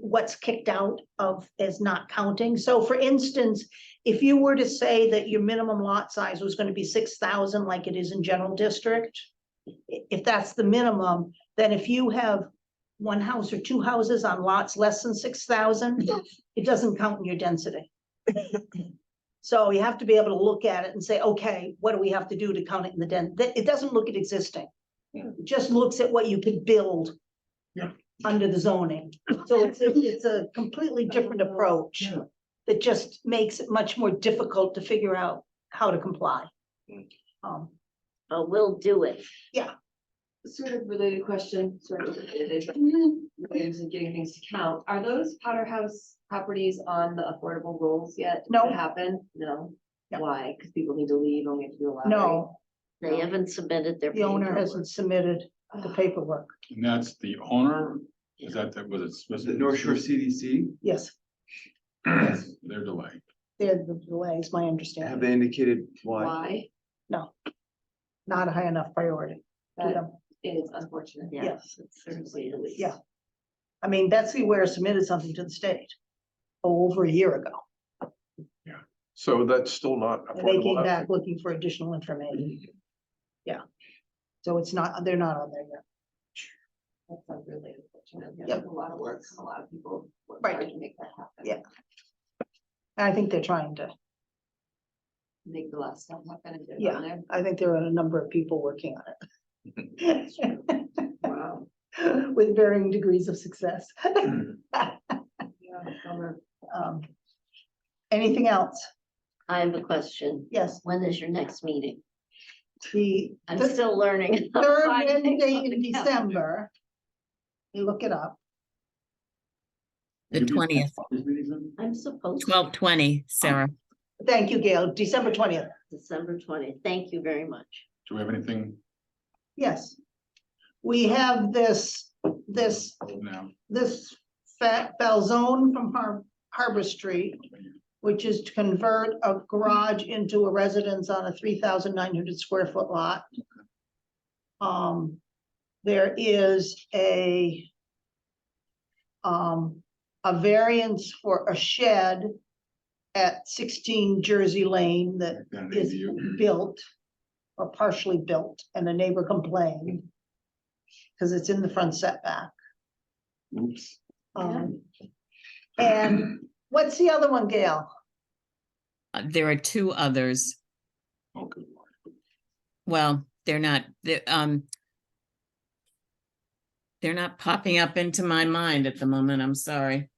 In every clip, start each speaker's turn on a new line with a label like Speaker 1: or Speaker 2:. Speaker 1: what's kicked out of is not counting. So for instance, if you were to say that your minimum lot size was gonna be six thousand like it is in general district, i- if that's the minimum, then if you have one house or two houses on lots less than six thousand, it doesn't count in your density. So you have to be able to look at it and say, okay, what do we have to do to count it in the den? That, it doesn't look at existing.
Speaker 2: Yeah.
Speaker 1: It just looks at what you could build
Speaker 2: Yeah.
Speaker 1: under the zoning. So it's, a- it's a completely different approach
Speaker 2: Yeah.
Speaker 1: that just makes it much more difficult to figure out how to comply.
Speaker 2: Mm.
Speaker 1: Um,
Speaker 3: but we'll do it.
Speaker 4: Sort of related question, sort of related, but ways of getting things to count. Are those powder house properties on the affordable rolls yet?
Speaker 1: No.
Speaker 4: What happened? No.
Speaker 1: No.
Speaker 4: Why? Because people need to leave and we have to do a lot.
Speaker 1: no,
Speaker 3: They haven't submitted their.
Speaker 1: the owner
Speaker 3: paperwork.
Speaker 1: hasn't submitted the paperwork.
Speaker 5: And that's the owner, is that, the- was it?
Speaker 2: Is
Speaker 5: Smith-
Speaker 2: it North Shore CDC?
Speaker 1: Yes,
Speaker 5: Their delay.
Speaker 1: they're the delays, my
Speaker 2: Have
Speaker 1: understanding,
Speaker 2: they indicated why?
Speaker 4: Why?
Speaker 1: not a high enough priority to
Speaker 4: That
Speaker 1: them.
Speaker 4: is unfortunate.
Speaker 3: Yeah,
Speaker 1: Yes.
Speaker 3: it certainly is.
Speaker 1: Yeah. I mean, Betsy Ware submitted something to the state over a year ago,
Speaker 6: So that's still not
Speaker 1: and they came
Speaker 6: affordable
Speaker 1: back
Speaker 6: housing.
Speaker 1: looking for additional information. Yeah. So it's not, they're not on there yet.
Speaker 4: That's not really unfortunate.
Speaker 1: Yeah.
Speaker 4: There's a lot of work, and a lot of people. work
Speaker 1: Right.
Speaker 4: hard To make that happen.
Speaker 1: Yeah. And I think they're trying to,
Speaker 4: Make the last step happen and get it
Speaker 1: Yeah.
Speaker 4: on there.
Speaker 1: I think there are a number of people working on it.
Speaker 4: Wow.
Speaker 1: With varying degrees of success.
Speaker 4: Yeah, bummer.
Speaker 1: Um, Anything else?
Speaker 3: I have a question.
Speaker 1: Yes,
Speaker 3: When is your next meeting?
Speaker 1: the
Speaker 3: I'm
Speaker 1: the
Speaker 3: still learning. how to
Speaker 1: third
Speaker 3: find things
Speaker 1: Wednesday
Speaker 3: on
Speaker 1: in
Speaker 3: the calendar.
Speaker 1: December. You look it up.
Speaker 7: The
Speaker 5: Give you-
Speaker 7: twentieth,
Speaker 3: I'm supposed. to
Speaker 7: twelve twenty, Sarah.
Speaker 1: Thank you, Gail. December twentieth.
Speaker 3: December twentieth. Thank you very much.
Speaker 5: Do we have anything
Speaker 1: Yes. We have this, this,
Speaker 5: Oh, now?
Speaker 1: this fat Falzone from Har- Harbor Street, which is to convert a garage into a residence on a three thousand nine hundred square foot lot. Um, there is a um, a variance for a shed at sixteen Jersey Lane that
Speaker 5: Then
Speaker 1: is
Speaker 5: ADU.
Speaker 1: built or partially built and a neighbor complained because it's in the front setback.
Speaker 5: Oops.
Speaker 1: Um, and what's the other one, Gail?
Speaker 7: Uh, There are two others.
Speaker 5: Oh, good lord.
Speaker 7: Well, they're not, they um. They're not popping up into my mind at the moment. I'm sorry.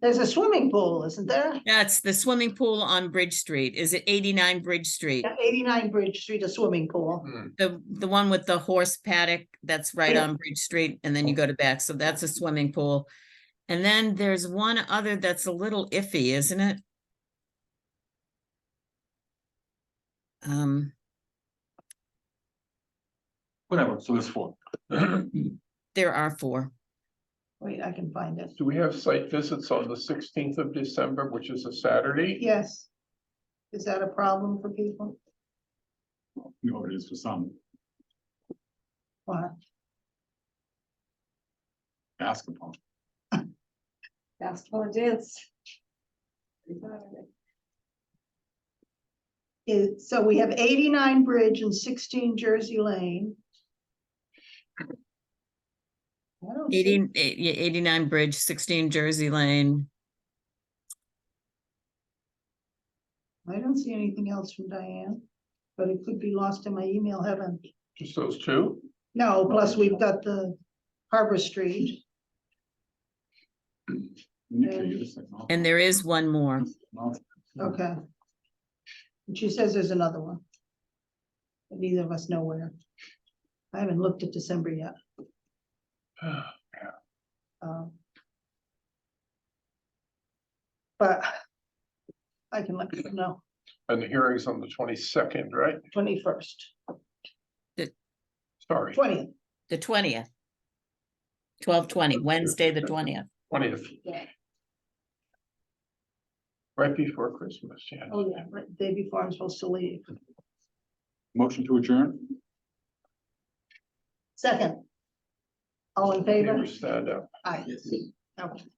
Speaker 1: There's a swimming pool, isn't there?
Speaker 7: That's the swimming pool on Bridge Street. Is it eighty-nine Bridge Street?
Speaker 1: Yeah, Eighty-nine Bridge Street, a swimming pool.
Speaker 7: The, the one with the horse paddock, that's right
Speaker 1: Yeah.
Speaker 7: on Bridge Street, and then you go to back, so that's a swimming pool. And then there's one other that's a little iffy, isn't it? Um,
Speaker 5: Whatever, so there's four. Well,
Speaker 7: there are four.
Speaker 1: Wait, I can find it.
Speaker 6: Do we have site visits on the sixteenth of December, which is a Saturday?
Speaker 1: Yes. Is that a problem for people?
Speaker 5: You know, it is for some
Speaker 1: Why?
Speaker 5: basketball.
Speaker 4: Basketball and dance.
Speaker 1: Is- so we have eighty-nine Bridge and sixteen Jersey Lane. I don't see-
Speaker 7: 80 eh, yeah, 89 Bridge, sixteen Jersey Lane.
Speaker 1: I don't see anything else from Diane, but it could be lost in my email heaven.
Speaker 6: Just those two?
Speaker 1: No, plus we've got the Harbor Street.
Speaker 5: Nuclear, it's like, oh,
Speaker 7: And there is one more.
Speaker 5: no.
Speaker 1: Okay. And she says there's another one. But Neither of us know where. I haven't looked at December yet. um, But I can let you know,
Speaker 6: And the hearing's on the twenty-second, right?
Speaker 1: twenty-first,
Speaker 6: Sorry,
Speaker 1: twentieth,
Speaker 7: The twentieth. Twelve twenty, Wednesday, the twentieth.
Speaker 6: twentieth,
Speaker 4: Yeah.
Speaker 6: right before Christmas, yeah.
Speaker 4: Oh, yeah.
Speaker 1: day before I'm supposed to leave.
Speaker 5: Motion to adjourn?
Speaker 1: Second. All in favor?
Speaker 6: Stand up.
Speaker 1: Aye. Okay.